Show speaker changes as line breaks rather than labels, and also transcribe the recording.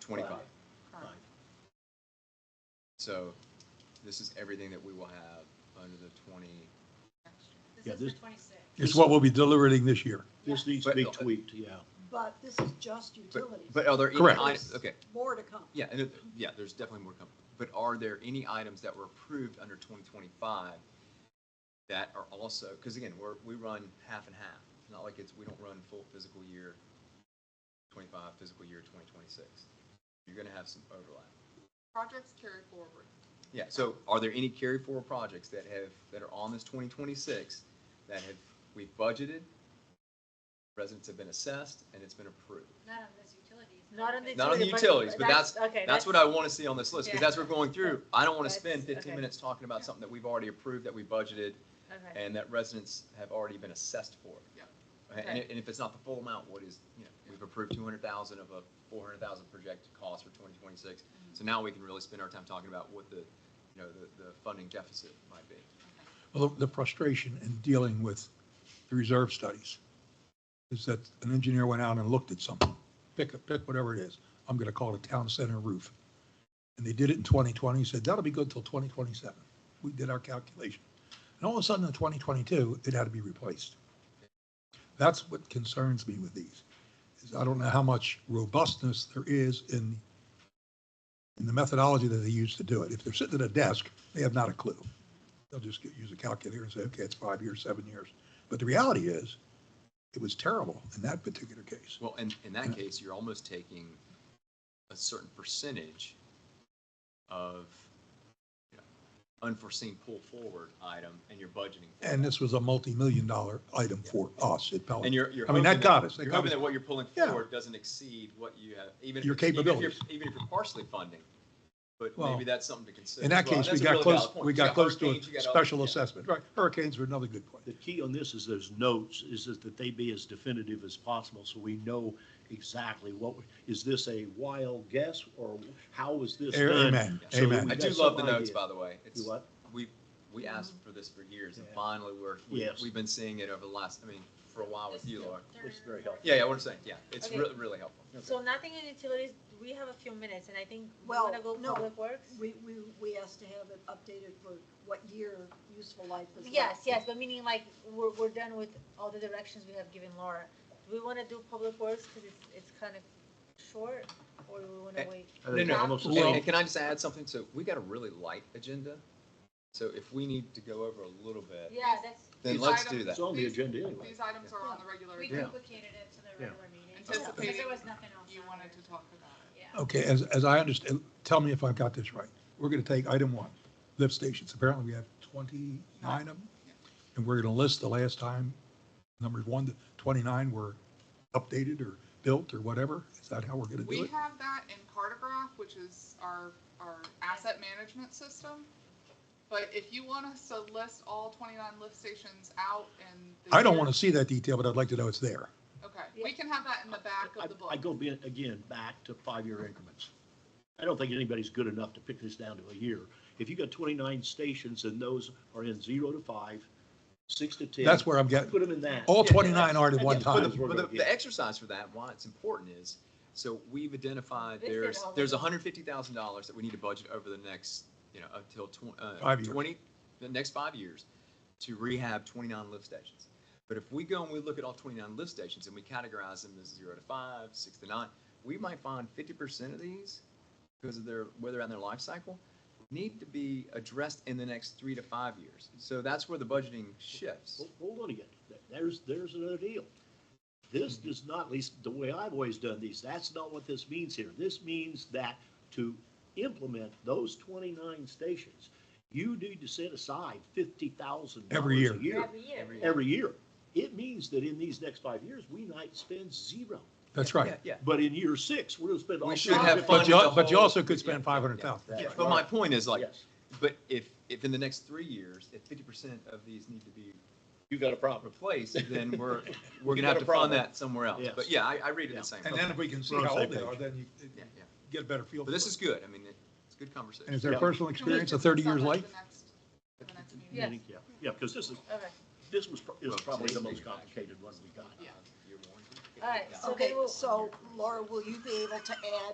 twenty-five.
Five.
So this is everything that we will have under the twenty.
This
Yeah,
is the
this-
twenty-six.
It's what we'll be deliberating this year.
This
needs to be
tweaked, yeah.
But this is just utilities.
But, but are there any?
Correct.
items- Okay,
More to come.
yeah, and, it- yeah, there's definitely more coming. But are there any items that were approved under twenty twenty-five that are also, because again, we're, we run half and half. It's not like it's, we don't run full physical year twenty-five, physical year twenty twenty-six. You're gonna have some overlap.
Projects carry forward.
Yeah, so are there any carry forward projects that have, that are on this twenty twenty-six that have, we've budgeted, residents have been assessed, and it's been approved?
Not on this utilities.
Not on the.
Not on the
utility,
utilities, but that's,
okay,
that's what I wanna see on this list, because
Yeah.
that's what we're going through. I don't wanna
That's-
spend fifteen
okay.
minutes talking about something that we've already approved, that we budgeted,
okay.
and that residents have already been assessed for.
Yeah.
And, and if it's not the full amount, what is, you know, we've approved two hundred thousand of a four hundred thousand projected cost for twenty twenty-six.
Mm-hmm.
So now we can really spend our time talking about what the, you know, the, the funding deficit might be.
Well, the frustration in dealing with the reserve studies is that an engineer went out and looked at something, pick, a- pick whatever it is. I'm going to call it a town center roof. And they did it in 2020, said that'll be good till 2027. We did our calculation. And all of a sudden in 2022, it had to be replaced. That's what concerns me with these, is I don't know how much robustness there is in, in the methodology that they use to do it. If they're sitting at a desk, they have not a clue they'll just get, use a calculator and say, okay, it's five years, seven years. But the reality is, it was terrible in that particular case.
Well, in, in that case, you're almost taking a certain percentage of you know, unforeseen pull forward item and you're budgeting. for
And
that.
this was a multi-million dollar item for us at Pelican.
And you're, you're.
I mean,
hoping
that got us. That
You're
got
hoping
us.
that what you're pulling
Yeah.
forward doesn't exceed what you have, even. if
Your
it's- even if you're-
capabilities.
Even if you're partially funding, but
Well,
maybe that's something to consider.
In that
as well.
case, we
That's a
got
really valid
close,
point.
we
You
got close to
hurricanes, you
a
got other-
special
yeah.
assessment. Right, hurricanes were another good point.
The key on this is those notes, is that that they be as definitive as possible, so we know exactly what, is this a wild guess, or how was this done?
Amen,
So that
amen.
we
I do
got
love the
some
notes,
idea.
by the way. It's,
You what?
we, we asked for this for years and
Yeah.
finally we're, we-
Yes.
we've been seeing it over the last, I mean, for a while with you, Laura.
It's very helpful.
Yeah, yeah, what I'm saying, yeah, it's
Okay.
really, really helpful.
So nothing in utilities, we have a few minutes, and I think we
Well,
wanna go
no.
public works?
We, we, we asked to have it updated for what year useful life is. left.
Yes, yes, but meaning like, we're, we're done with all the directions we have given Laura. Do we wanna do public works, cause it's, it's kind of short, or do we wanna
Eh,
wait?
I
No,
think
no.
almost the
And-
same.
And can I just add something? So we got a really light agenda. So if we need to go over a little bit,
Yeah, that's,
then
These
let's
items-
do that.
It's on the
These-
agenda anyway.
These items are on the regular,
We
agenda.
duplicated it to the
Yeah.
regular meeting.
Anticipating
Because there was nothing else.
you
on
wanted
there.
to talk about it.
Yeah.
Okay, as, as I understand, tell me if I've got this right. We're going to take item one, lift stations. Apparently, we have 29 of them. And we're going to list the last time, numbers one to 29 were updated or built or whatever. Is that how we're going to do
We
it?
have that in Cartograph, which is our, our asset management system. But if you want us to list all twenty-nine lift stations out and.
I don't want to see that detail, but I'd like to know it's there.
Okay, we can have that in the back
I-
of the book.
I go be- again, back to five-year increments. I don't think anybody's good enough to pick this down to a year. If you got twenty-nine stations and those are in zero to five, six to ten.
That's where I'm getting,
Put them in that.
all
Yeah,
29 are at one
Put
But
time.
them-
the, but the, the exercise for that, why it's important is, so we've identified
Listed
there's,
all of
there's
them.
hundred fifty thousand dollars that we need to budget over the next, you know, until tw- uh,
Five years.
twenty, the next five years to rehab twenty-nine lift stations. But if we go and we look at all twenty-nine lift stations and we categorize them as zero to five, six to nine, we might find fifty percent of these, because of their, where they're on their life cycle, need to be addressed in the next three to five years. So that's where the budgeting shifts.
Hold- Hold on again. There's, there's another deal. This
Mm-hmm.
does not, at least the way I've always done these, that's not what this means here. This means that to implement those twenty-nine stations, you need to set aside fifty thousand
Every
dollars
year.
a year.
every year.
Every year.
Every year. It means that in these next five years, we might spend zero.
That's
Yeah,
right.
yeah.
But in year six, we're gonna spend all.
We should have
But
funded
you,
the
but you
whole-
also could
yeah,
spend
yeah, yeah.
500,000.
That's
But
right.
my point is like,
Yes,
But if, if in the next three years, if fifty percent of these need to be
you got a problem.
replaced, then we're, we're
You
gonna have
got a
to
problem.
fund that somewhere else.
Yes.
But yeah, I, I read it
Yeah.
the same.
And
way.
then if we can see
We're on
how
the
old
same
they are,
page.
then you
Yeah, yeah.
get a better feel.
But
for
this
it.
is good. I mean, it- it's a good
And
conversation.
is their
Yeah.
personal
Can we
experience a
discuss
30 years
that at
life?
the next- the next meeting?
Yes.
Yeah, yeah, because this is,
Okay,
this was, pro- is
Well,
probably the
today's
most
meeting, actually.
complicated one we got.
Yeah.
Your warranty?
All right, so
Okay,
they will-
so Laura, will you be able to add